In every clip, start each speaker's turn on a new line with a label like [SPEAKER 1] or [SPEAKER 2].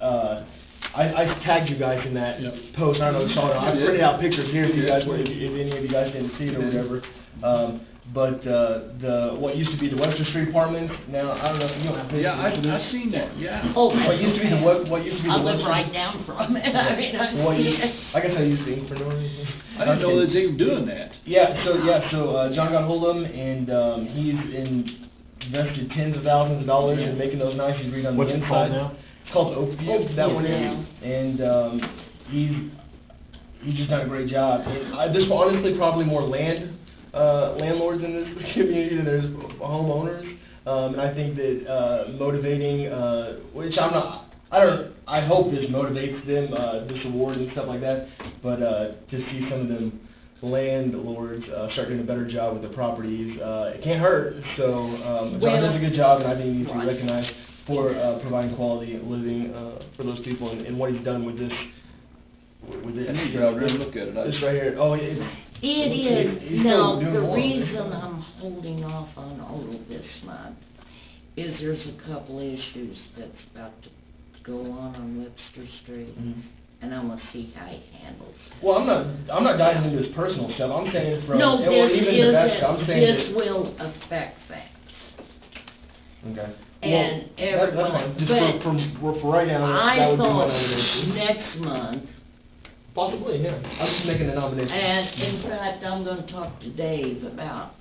[SPEAKER 1] uh, I, I tagged you guys in that
[SPEAKER 2] Yep.
[SPEAKER 1] post, I don't know if you saw it, I
[SPEAKER 2] Yeah.
[SPEAKER 1] printed out pictures here if you guys,
[SPEAKER 2] Yeah.
[SPEAKER 1] if, if any of you guys didn't see it or
[SPEAKER 2] Yeah.
[SPEAKER 1] whatever. Um, but, uh, the, what used to be the Webster Street apartment, now, I don't know, if you don't have pictures.
[SPEAKER 2] Yeah, I,
[SPEAKER 1] of this.
[SPEAKER 2] I seen that, yeah.
[SPEAKER 3] Oh,
[SPEAKER 1] What used to be the web, what used to be the
[SPEAKER 3] I live
[SPEAKER 1] Webster.
[SPEAKER 3] right down from it, I mean, I'm.
[SPEAKER 1] What used, I guess I used the Infernor.
[SPEAKER 2] I didn't know that they were doing that.
[SPEAKER 1] Yeah, so, yeah, so, uh, John got hold of him, and, um, he's in- invested tens of thousands of dollars in making those nice, he's redone the
[SPEAKER 4] What's it called
[SPEAKER 1] inside.
[SPEAKER 4] now?
[SPEAKER 1] It's called Oakview, that one
[SPEAKER 3] Oakview,
[SPEAKER 1] is, and, um, he's, he's just done a great job. And I, there's honestly probably more land, uh, landlords in this community than there's homeowners. Um, and I think that, uh, motivating, uh, which I'm not, I don't, I hope this motivates them, uh, this award and stuff like that, but, uh, to see some of them landlords, uh, start doing a better job with their properties, uh, it can't hurt, so, um, John does a
[SPEAKER 3] Well-
[SPEAKER 1] good job, and I think he needs to be
[SPEAKER 3] Right.
[SPEAKER 1] recognized recognized for uh, providing quality of living uh, for those people and and what he's done with this, with this.
[SPEAKER 2] I need to go out there and look at it. I-
[SPEAKER 1] This right here, oh, it- it's.
[SPEAKER 3] It
[SPEAKER 1] it's-
[SPEAKER 3] is,
[SPEAKER 1] it's
[SPEAKER 3] now,
[SPEAKER 1] still doing
[SPEAKER 3] the
[SPEAKER 1] well.
[SPEAKER 3] reason I'm holding off on Odel this month is there's a couple issues that's about to go on on Webster Street,
[SPEAKER 1] Mhm.
[SPEAKER 3] and I wanna see how he handles it.
[SPEAKER 1] Well, I'm not, I'm not diving into his personal stuff, I'm saying from,
[SPEAKER 3] No,
[SPEAKER 1] and well,
[SPEAKER 3] this
[SPEAKER 1] even the best,
[SPEAKER 3] isn't,
[SPEAKER 1] I'm saying
[SPEAKER 3] this will affect that.
[SPEAKER 1] that. Okay.
[SPEAKER 3] and
[SPEAKER 1] Well, that- that's
[SPEAKER 3] everyone,
[SPEAKER 1] fine. Just
[SPEAKER 3] but
[SPEAKER 1] for, from- for, for right now, that
[SPEAKER 3] I
[SPEAKER 1] would be my
[SPEAKER 3] thought
[SPEAKER 1] nomination.
[SPEAKER 3] next month,
[SPEAKER 1] Possibly, yeah, I'm just making a nomination.
[SPEAKER 3] and in fact, I'm gonna talk to Dave about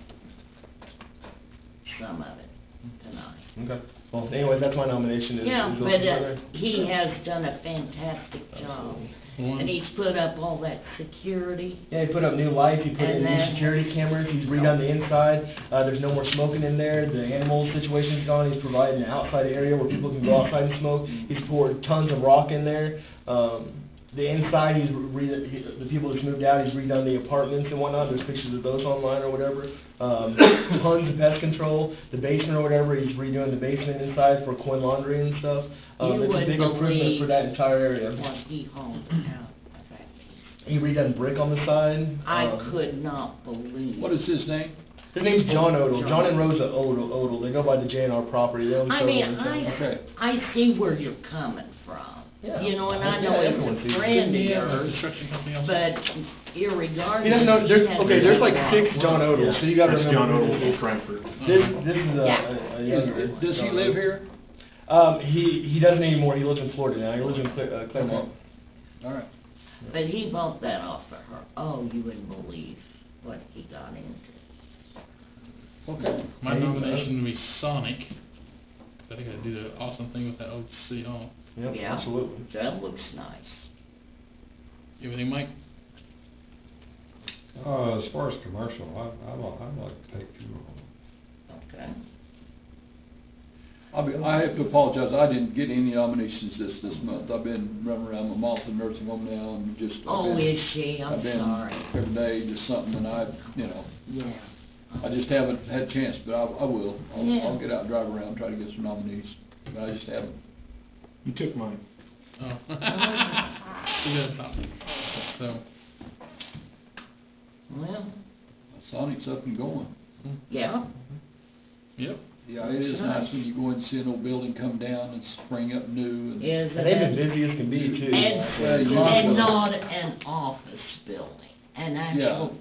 [SPEAKER 3] some of it tonight.
[SPEAKER 1] Mm-hmm. Okay, well, anyway, that's my nomination is.
[SPEAKER 3] Yeah,
[SPEAKER 1] is those
[SPEAKER 3] but,
[SPEAKER 1] people
[SPEAKER 3] uh,
[SPEAKER 1] right there.
[SPEAKER 3] he has done a fantastic job,
[SPEAKER 1] Absolutely.
[SPEAKER 3] and he's put up all that security.
[SPEAKER 1] Yeah, he put up new lights, he put in
[SPEAKER 3] And
[SPEAKER 1] new
[SPEAKER 3] then-
[SPEAKER 1] security cameras, he's redone the inside, uh, there's no more smoking in there, the animal situation's gone, he's provided an outside area where people can go outside and smoke, he's poured tons of rock in there, um, the inside, he's re, he- the people that's moved out, he's redone the apartments and whatnot, there's pictures of those online or whatever, um, tons of pest control, the basement or whatever, he's redoing the basement inside for coin laundry and stuff, um,
[SPEAKER 3] You
[SPEAKER 1] it's a
[SPEAKER 3] wouldn't
[SPEAKER 1] big improvement for
[SPEAKER 3] believe
[SPEAKER 1] that entire area. Uh,
[SPEAKER 3] What he hauled out of that piece.
[SPEAKER 1] He redone brick on the side.
[SPEAKER 3] I
[SPEAKER 1] um,
[SPEAKER 3] could not believe.
[SPEAKER 2] What is his name?
[SPEAKER 1] Their name's John Odell, John and Rosa Odell, Odell, they go by the J and R property, they own
[SPEAKER 3] I
[SPEAKER 1] several
[SPEAKER 3] mean,
[SPEAKER 1] in town.
[SPEAKER 2] Okay.
[SPEAKER 3] I, I see where you're coming from,
[SPEAKER 1] Yeah.
[SPEAKER 3] you know, and I
[SPEAKER 1] Yeah,
[SPEAKER 3] know
[SPEAKER 1] everyone
[SPEAKER 3] it's
[SPEAKER 1] sees it.
[SPEAKER 3] a friend of yours,
[SPEAKER 2] Construction company else?
[SPEAKER 3] but irregardless.
[SPEAKER 1] He doesn't know, there's,
[SPEAKER 3] he had
[SPEAKER 1] okay, there's like
[SPEAKER 3] another
[SPEAKER 1] six
[SPEAKER 3] one.
[SPEAKER 1] John Odells, so you gotta
[SPEAKER 4] That's John
[SPEAKER 1] remember.
[SPEAKER 4] Odell from
[SPEAKER 1] who
[SPEAKER 4] Frankfort.
[SPEAKER 1] This is. This, this is a,
[SPEAKER 3] Yeah.
[SPEAKER 1] a- a younger.
[SPEAKER 2] Is- Uh, Does he
[SPEAKER 1] John
[SPEAKER 2] live
[SPEAKER 1] Odell.
[SPEAKER 2] here?
[SPEAKER 1] Um, he, he doesn't anymore, he lives in Florida now, he lives in Cle- uh, Claremont.
[SPEAKER 2] All right.
[SPEAKER 3] But he bought that off of her, oh, you wouldn't believe what he got into.
[SPEAKER 2] Okay.
[SPEAKER 5] My
[SPEAKER 1] Hey, uh,
[SPEAKER 5] nomination would be Sonic. I think I'd do the awesome thing with that old C on.
[SPEAKER 1] Yep,
[SPEAKER 3] Yeah.
[SPEAKER 1] absolutely.
[SPEAKER 3] That looks nice.
[SPEAKER 5] You have any, Mike?
[SPEAKER 6] Uh, as far as commercial, I, I like, I'd like to take funeral.
[SPEAKER 3] Okay.
[SPEAKER 2] I'll be, I have to apologize, I didn't get any nominations this, this month. I've been running around my mom's a nursing home now and just. I've
[SPEAKER 3] Oh,
[SPEAKER 2] been-
[SPEAKER 3] is she? I'm
[SPEAKER 2] I've been
[SPEAKER 3] sorry.
[SPEAKER 2] Every day, just something, and I, you know,
[SPEAKER 3] Yeah.
[SPEAKER 2] I just haven't had a chance, but I, I will. I'll,
[SPEAKER 3] Yeah.
[SPEAKER 2] I'll get out and drive around, try to get some nominees, but I just haven't.
[SPEAKER 4] You took mine.
[SPEAKER 5] Oh. You got a topic. So,
[SPEAKER 3] Well,
[SPEAKER 2] Sonic's up and going.
[SPEAKER 3] yeah,
[SPEAKER 5] yep.
[SPEAKER 2] Yeah, it is nice when you go and see an old building come down and spring up new and.
[SPEAKER 3] is
[SPEAKER 1] And
[SPEAKER 3] it?
[SPEAKER 1] they've been busy as can be too. uh,
[SPEAKER 2] Well,
[SPEAKER 3] And,
[SPEAKER 2] you might as
[SPEAKER 3] and
[SPEAKER 2] well.
[SPEAKER 3] not an office building, an actual
[SPEAKER 2] or-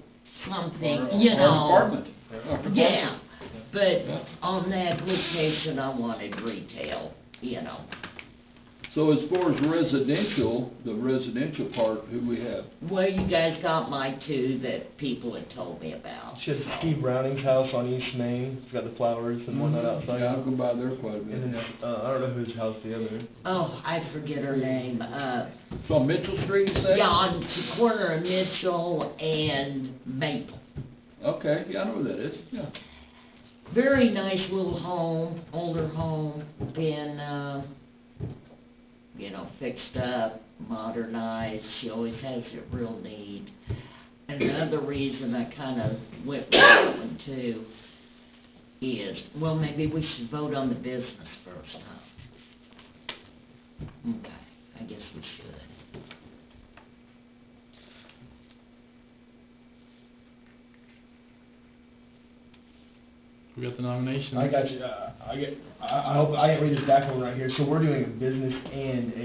[SPEAKER 3] something, you
[SPEAKER 2] or
[SPEAKER 3] know.
[SPEAKER 2] apartment. Or-
[SPEAKER 3] Yeah,
[SPEAKER 2] Yeah.
[SPEAKER 3] but on the application, I wanted retail, you know.
[SPEAKER 2] So as far as residential, the residential part, who we have?
[SPEAKER 3] Well, you guys got my two that people had told me about.
[SPEAKER 1] She has Steve Browning's house on East Main, it's got the flowers and whatnot
[SPEAKER 3] Mm-hmm.
[SPEAKER 1] outside.
[SPEAKER 2] Yeah, I've gone by there quite a
[SPEAKER 1] And then,
[SPEAKER 2] bit.
[SPEAKER 1] uh, I don't know whose house the other,
[SPEAKER 3] Oh, I forget her name, uh,
[SPEAKER 2] So on Mitchell Street, you say?
[SPEAKER 3] yeah, on the corner of Mitchell and Maple.
[SPEAKER 2] Okay, yeah, I know where that is, yeah.
[SPEAKER 3] Very nice little home, older home, been, uh, you know, fixed up, modernized, she always has it real neat. Another reason I kinda went with that one too is, well, maybe we should vote on the business first, huh? Okay, I guess we should.
[SPEAKER 5] We got the nomination.
[SPEAKER 1] I got you, uh, I get, I, I hope, I didn't read this back one right here, so we're doing a business and a